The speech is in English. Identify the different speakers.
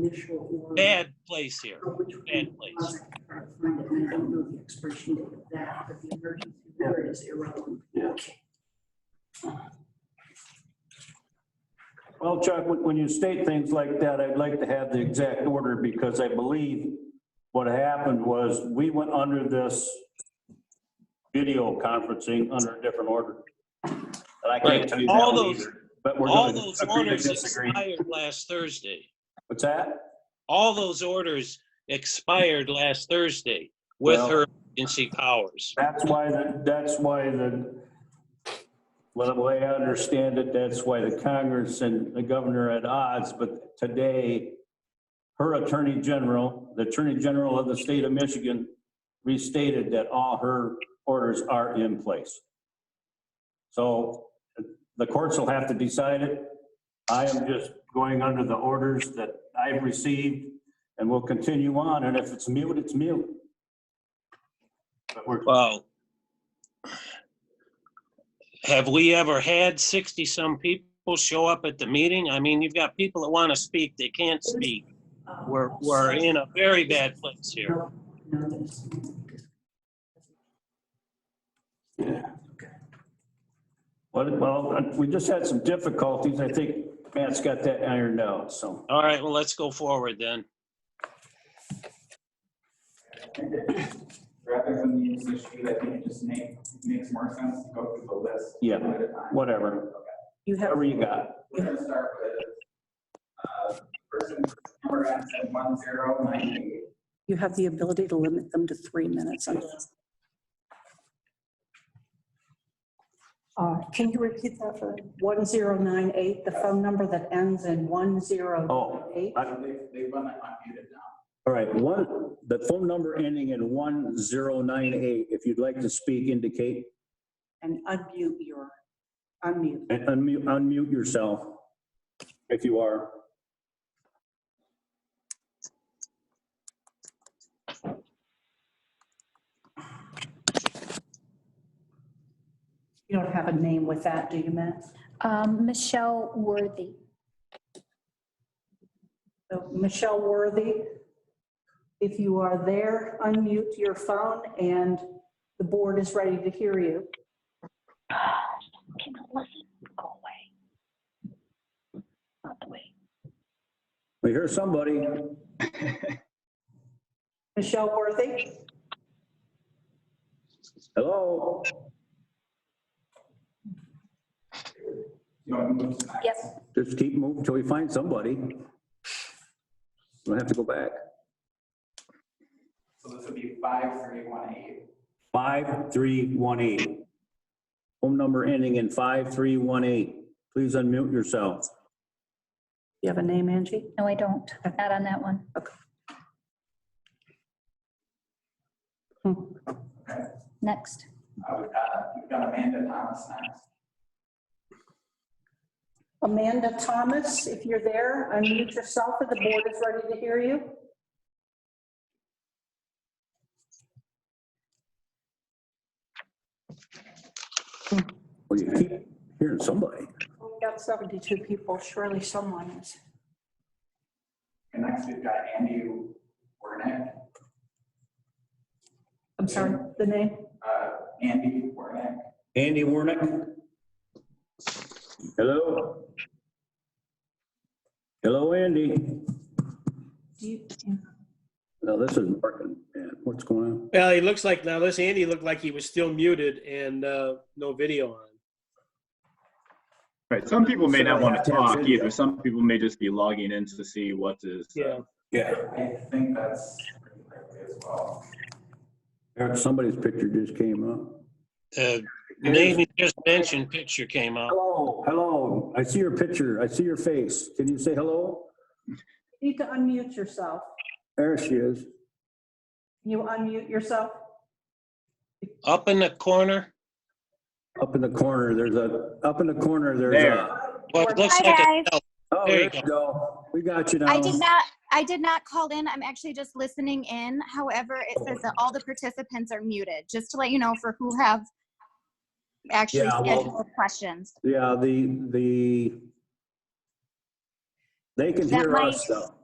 Speaker 1: initial or.
Speaker 2: bad place here,
Speaker 1: or which one
Speaker 2: bad
Speaker 1: it
Speaker 2: place.
Speaker 1: was. I can try to find it, and I don't know the expiration date of that, but the emergency word is irrelevant.
Speaker 3: Yeah.
Speaker 1: Okay.
Speaker 3: Well, Chuck, when when you state things like that, I'd like to have the exact order because I believe what happened was we went under this video conferencing under a different order. And I
Speaker 2: Right.
Speaker 3: can't tell you that
Speaker 2: All
Speaker 3: one
Speaker 2: those-
Speaker 3: either, but we're
Speaker 2: All
Speaker 3: going
Speaker 2: those
Speaker 3: to agree to
Speaker 2: orders
Speaker 3: disagree.
Speaker 2: expired last Thursday.
Speaker 3: What's that?
Speaker 2: All those orders expired last Thursday with
Speaker 3: Well-
Speaker 2: her agency powers.
Speaker 3: That's why, the- that's why the, well, the way I understand it, that's why the Congress and the governor are at odds, but today, her attorney general, the attorney general of the state of Michigan restated that all her orders are in place. So the courts will have to decide it. I am just going under the orders that I've received and will continue on, and if it's mute, it's mute. But we're
Speaker 2: Well, have we ever had 60-some people show up at the meeting? I mean, you've got people that want to speak, they can't speak.
Speaker 1: Uh,
Speaker 2: We're, we're in a very bad place here.
Speaker 1: No, no, there's-
Speaker 3: Well, well, we just had some difficulties. I think Matt's got that ironed out, so.
Speaker 2: All right, well, let's go forward then.
Speaker 4: rather than the issue, I think it just make, makes more sense to go through the list.
Speaker 3: Yeah.
Speaker 4: one At a time.
Speaker 3: Whatever,
Speaker 1: You have,
Speaker 3: whatever you got.
Speaker 4: We're gonna start with, uh, person, number ends at one zero nine eight.
Speaker 1: you have the ability to limit them to three minutes.
Speaker 5: Uh, Can you repeat that for 1098, the phone number that ends in 1098?
Speaker 3: I-
Speaker 4: They, they run it unmuted now.
Speaker 3: All right, one, the phone number ending in one zero nine eight, if you'd like to speak, indicate,
Speaker 5: And unmute your, unmute.
Speaker 3: and unmute, unmute yourself if you are.
Speaker 5: You don't have a name with that, do you, Matt?
Speaker 6: Um, Michelle Worthy.
Speaker 5: So Michelle Worthy, if you are there, unmute your phone and the board is ready to hear you.
Speaker 6: Can I listen? Go away. Not the way.
Speaker 3: We hear somebody.
Speaker 5: Michelle Worthy?
Speaker 3: Hello?
Speaker 4: You want to move to the next?
Speaker 6: Yes,
Speaker 3: Just keep moving till we find somebody. We'll have to go back.
Speaker 4: So this would be five three one eight.
Speaker 3: Five, three, one, eight. Phone number ending in five, three, one, eight. Please unmute yourself.
Speaker 5: You have a name, Angie?
Speaker 6: no, I don't. Not on that one. Next.
Speaker 4: Uh, we've got, we've got Amanda Thomas next.
Speaker 5: Amanda Thomas, if you're there, unmute yourself and the board is ready to hear you.
Speaker 3: Well, you keep hearing somebody.
Speaker 5: We've got 72 people, surely someone is.
Speaker 4: And next we've got Andy Wernick,
Speaker 5: I'm sorry, the name?
Speaker 4: uh, Andy Wernick.
Speaker 3: Andy Warnick? Hello? Hello, Andy?
Speaker 5: Do you-
Speaker 3: No, this isn't working, man. What's going on?
Speaker 7: Well, he looks like now this Andy looked like he was still muted and uh, no video on.
Speaker 8: Right, some people may
Speaker 3: So
Speaker 8: not
Speaker 3: they
Speaker 8: want
Speaker 3: have
Speaker 8: to
Speaker 3: to have
Speaker 8: talk
Speaker 3: video.
Speaker 8: either. Some people may just be logging in to see what is. uh,
Speaker 7: Yeah.
Speaker 3: Yeah.
Speaker 4: I think that's pretty likely as well.
Speaker 3: Eric, somebody's picture just came up.
Speaker 2: The name you Uh, just mentioned picture came up.
Speaker 3: Hello, hello. I see your picture. I see your face. Can you say hello?
Speaker 5: you Need to unmute yourself.
Speaker 3: There she is.
Speaker 5: Can you unmute yourself?
Speaker 2: Up in the corner,
Speaker 3: Up in the corner, there's a, up in the corner, there's
Speaker 8: There.
Speaker 3: a.
Speaker 2: what looks
Speaker 9: Hi,
Speaker 2: like a
Speaker 9: guys.
Speaker 3: Oh,
Speaker 2: There
Speaker 3: there
Speaker 2: you
Speaker 3: you go. We got you now.
Speaker 9: I did not, I did not call in. I'm actually just listening in. However, it says that all the participants are muted, just to let you know for who have actually
Speaker 3: Yeah, well-
Speaker 9: scheduled questions.
Speaker 3: Yeah, the, the, they can
Speaker 9: That
Speaker 3: hear
Speaker 9: might-
Speaker 3: us though.